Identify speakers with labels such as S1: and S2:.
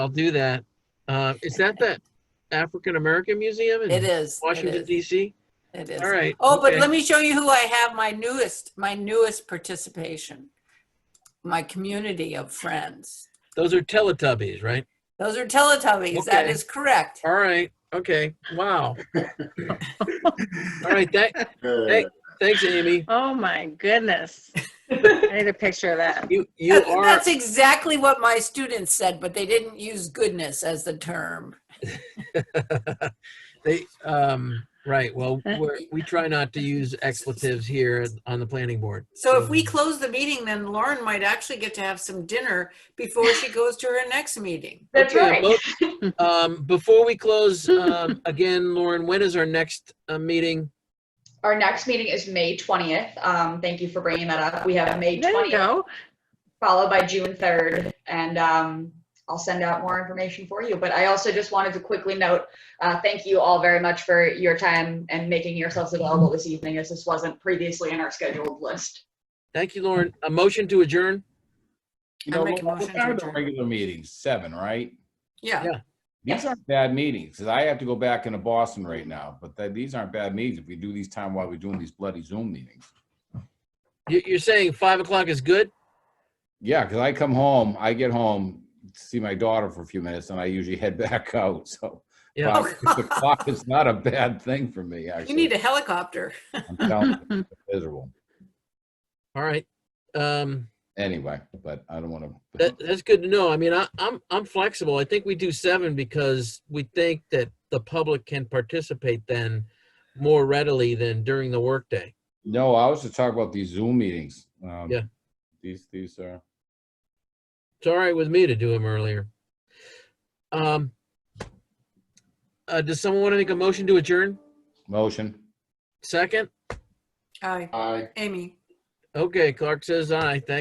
S1: I'll do that. Uh, is that that African American Museum
S2: It
S1: in
S2: is. it
S1: Washington
S2: is,
S1: DC?
S2: It is.
S1: All right.
S2: Oh, but
S1: okay.
S2: let me show you who I have, my newest, my newest participation. My community of friends.
S1: Those are Teletubbies, right?
S2: Those are Teletubbies. That
S1: Okay.
S2: is correct.
S1: All right. Okay. Wow. All right. That, Hey. thanks, Amy.
S3: Oh my goodness. I need a picture of that.
S1: You you
S2: That's
S1: are
S2: that's exactly what my students said, but they didn't use goodness as the term.
S1: they um right. Well, we're, we try not to use expletives here on the planning board.
S2: So if
S1: Hmm.
S2: we close the meeting, then Lauren might actually get to have some dinner before she goes to her next meeting.
S4: That's
S1: Okay,
S4: right.
S1: well, um, before we close, um, again, Lauren, when is our next uh, meeting?
S4: Our next meeting is May 20th. Um, thank you for bringing that up. We have May
S3: There you
S4: 20th
S3: go.
S4: followed by June 3rd. And um, I'll send out more information for you. But I also just wanted to quickly note, uh, thank you all very much for your time and making yourselves available this evening as this wasn't previously in our scheduled list.
S1: Thank you, Lauren. A motion to adjourn?
S5: You
S2: I
S5: know,
S2: make a
S5: what
S2: motion to
S5: time are the
S2: adjourn.
S5: regular meetings? Seven, right?
S2: Yeah.
S5: These aren't bad meetings, 'cause I have to go back into Boston right now, but th- these aren't bad meetings if we do these time while we're doing these bloody Zoom meetings.
S1: You, you're saying five o'clock is good?
S5: Yeah, 'cause I come home, I get home, see my daughter for a few minutes, and I usually head back out, so.
S1: Yeah.
S5: five, six o'clock is not a bad thing for me,
S2: You
S5: actually.
S2: need a helicopter.
S5: I'm telling you, it's Miserable,
S1: All right. Um,
S5: anyway, but I don't want
S1: that,
S5: to.
S1: that's good to know. I mean, I, I'm, I'm flexible. I think we do seven because we think that the public can participate then more readily than during the workday.
S5: No, I was to talk about these Zoom meetings. um,
S1: Yeah.
S5: These, these uh, are.
S1: It's all right with me to do them earlier. Um, uh, does someone want to make a motion to adjourn?
S5: Motion.
S1: Second?
S2: Hi,
S5: Aye.
S2: Amy.
S1: Okay, Clark says aye. Thank